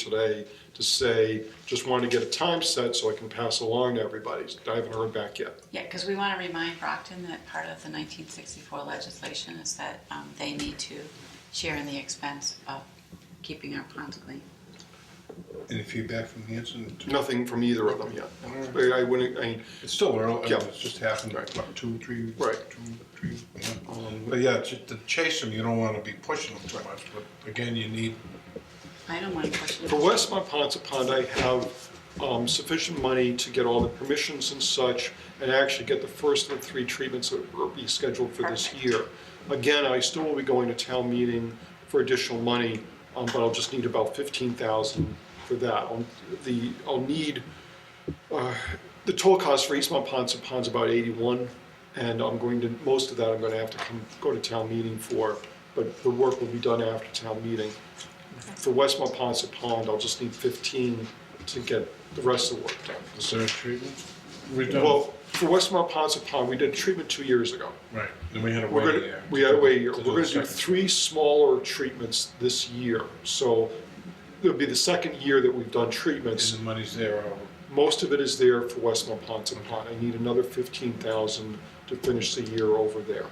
today to say, just wanted to get a time set so I can pass along to everybody. I haven't heard back yet. Yeah, because we want to remind Brockton that part of the 1964 legislation is that um, they need to share in the expense of keeping our ponds clean. Any feedback from Hanson? Nothing from either of them yet. Mm-hmm. I I wouldn't, I, It's still early, I Yeah. mean, it's just happened, Right. what, two, three? Right. Two, three, yeah. um, But yeah, to to chase them, you don't wanna be pushing them too much, but again, you need, I don't want to question. for West Monpont Pond, I have um, sufficient money to get all the permissions and such and actually get the first of the three treatments that will be scheduled for this Perfect. year. Again, I still will be going to town meeting for additional money, um, but I'll just need about 15,000 for that. I'll- The, I'll need uh, The total cost for Eastmont Ponds and Ponds about eighty-one, and I'm going to, most of that I'm gonna have to come, go to town meeting for, but the work will be done after town meeting. For Westmont Ponds and Pond, I'll just need fifteen to get the rest of the work done. is there a treatment? We've done- Well, for Westmont Ponds and Pond, we did treatment two years ago. Right, then we had a We're wait gonna, there. we had a wait a year. To We're the gonna do second. three smaller treatments this year, so it'll be the second year that we've done treatments. And the money's there, uh, I'll- Most of it is there for Westmont Ponce Pond. I need another fifteen thousand to finish the year over there.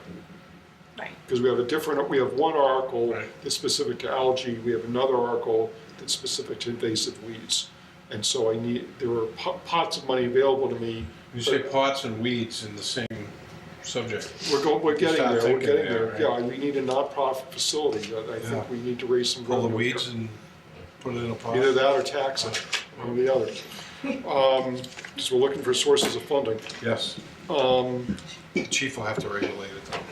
Right. Because we have a different, we have one article Right. that's specific to algae, we have another article that's specific to invasive weeds. And so I need, there are po- pots of money available to me. you say but pots and weeds in the same subject. We're going, we're getting start there, we're thinking getting there, there. Yeah, we need a nonprofit facility that I Yeah. think we need to raise some. Pull the revenue weeds here. and put it in a pot. Either that or tax it, one or the other. Um, So we're looking for sources of funding. Yes. Um. Chief will have to regulate it though.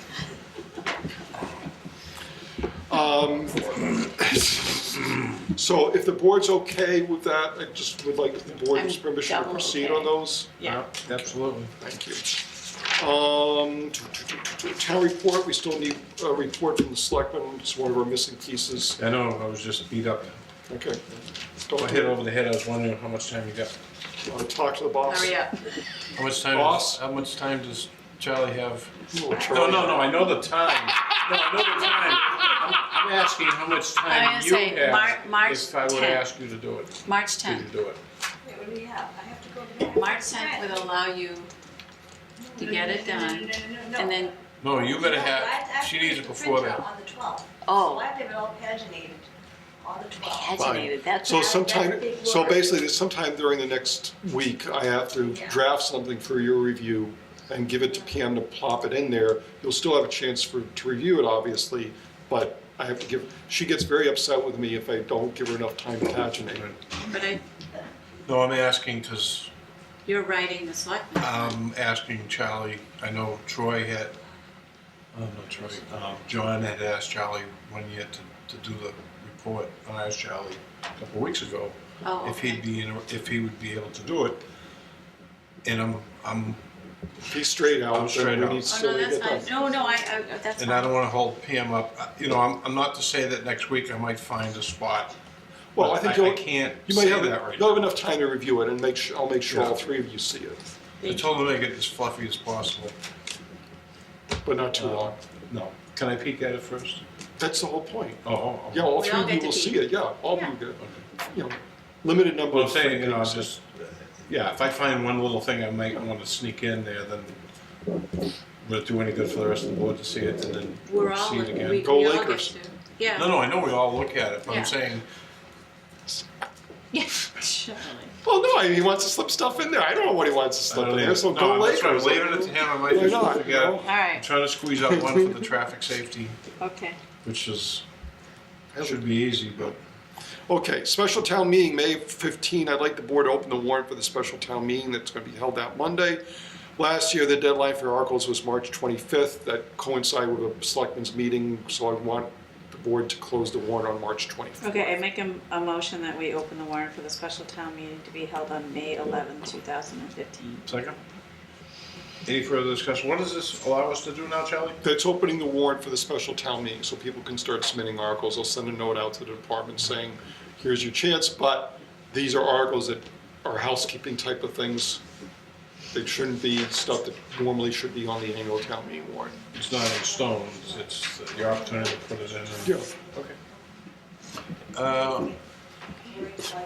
So if the board's okay with that, I just would like the board's I'm permission to double proceed okay. on those. Yeah. Absolutely. Thank you. Um, t- t- t- t- t- Town report, we still need a report from the selectmen, it's one of our missing pieces. I know, I was just beat up. Okay. I Don't hit hit, over the head, I was wondering how much time you got. talk to the Uh, boss. Hurry up. How much time? Boss? Does, how much time does Charlie have? We'll try. No, no, no. I know the time. No, I know the time. I'm, I'm asking how much I time was you gonna say, have Mar- March if I were to 10th. ask you to do it. March Did you 10th. do it? Wait, what do we have? I have to go to that. March 10th would allow you to get it done, and then, No, you gotta have. She needs it before that. On the twelfth. So oh, I have to have it all paginated on the twelfth. agitated, that's. So That- sometime, that's a big so word. basically, there's sometime during the next week, I have to Yeah. draft something for your review and give it to PM to plop it in there. You'll still have a chance for, to review it, obviously, but I have to give, she gets very upset with me if I don't give her enough time to paginate. But I, No, I'm asking because you're writing the selectmen. Oh, I'm asking Charlie. I know Troy had. Oh, not Troy. Um, John had asked Charlie one year to, to do the report. I asked Charlie a couple of weeks ago. Oh, if he'd okay. be, in- if he would be able to do it. And I'm, I'm, If he's straight I'm out, straight then we out. need to Oh, still no, get that's that. fine. No, no, I, I, that's and I fine. don't wanna hold Pam up, Uh, you know, I'm, I'm not to say that next week I might find a spot. Well, I But think I- I you'll, can't you might say have, that right you'll have enough time to review it and make sure, I'll make sure Yeah. all three of you see it, I told him to make it as fluffy as possible. but not too long. Uh, No, can I peek at it first? That's the whole point. Oh, Oh, Yeah, oh. all We three all of you get to will see peek. it, yeah, all of you Yeah. get, you know, limited number Well, of. I'm saying, you know, things. it's just, yeah, if I find one little thing I might wanna sneak in there, then would it do any good for the rest of the board to see it and then We're all, see it we, we again? Go all get Lakers. to, yeah. No, no, I know we all look at it, but Yeah. I'm saying, Yeah, surely. Well, no, I mean, he wants to slip stuff in there. I don't know what he wants to I slip don't in either. there. So No, go that's later. right, leaving it to him, I might Why just not, you forget. know? All I'm right, trying to squeeze out one for the traffic safety, okay. which is, should be easy, but Okay, special town meeting, May 15. I'd like the board to open the warrant for the special town meeting that's going to be held that Monday. Last year, the deadline for articles was March 25th. That coincided with a selectmen's meeting, so I want the board to close the warrant on March 25th. Okay, I make a, a motion that we open the warrant for the special town meeting to be held on May 11, 2015. second. Any further discussion? What does this allow us to do now, Charlie? That's opening the warrant for the special town meeting, so people can start submitting articles. I'll send a note out to the department saying, here's your chance, but these are articles that are housekeeping type of things. They shouldn't be stuff that normally should be on the annual town meeting warrant. It's not in stone, it's- it's the opportunity to put it in. and- Yeah, Uh, Where it's like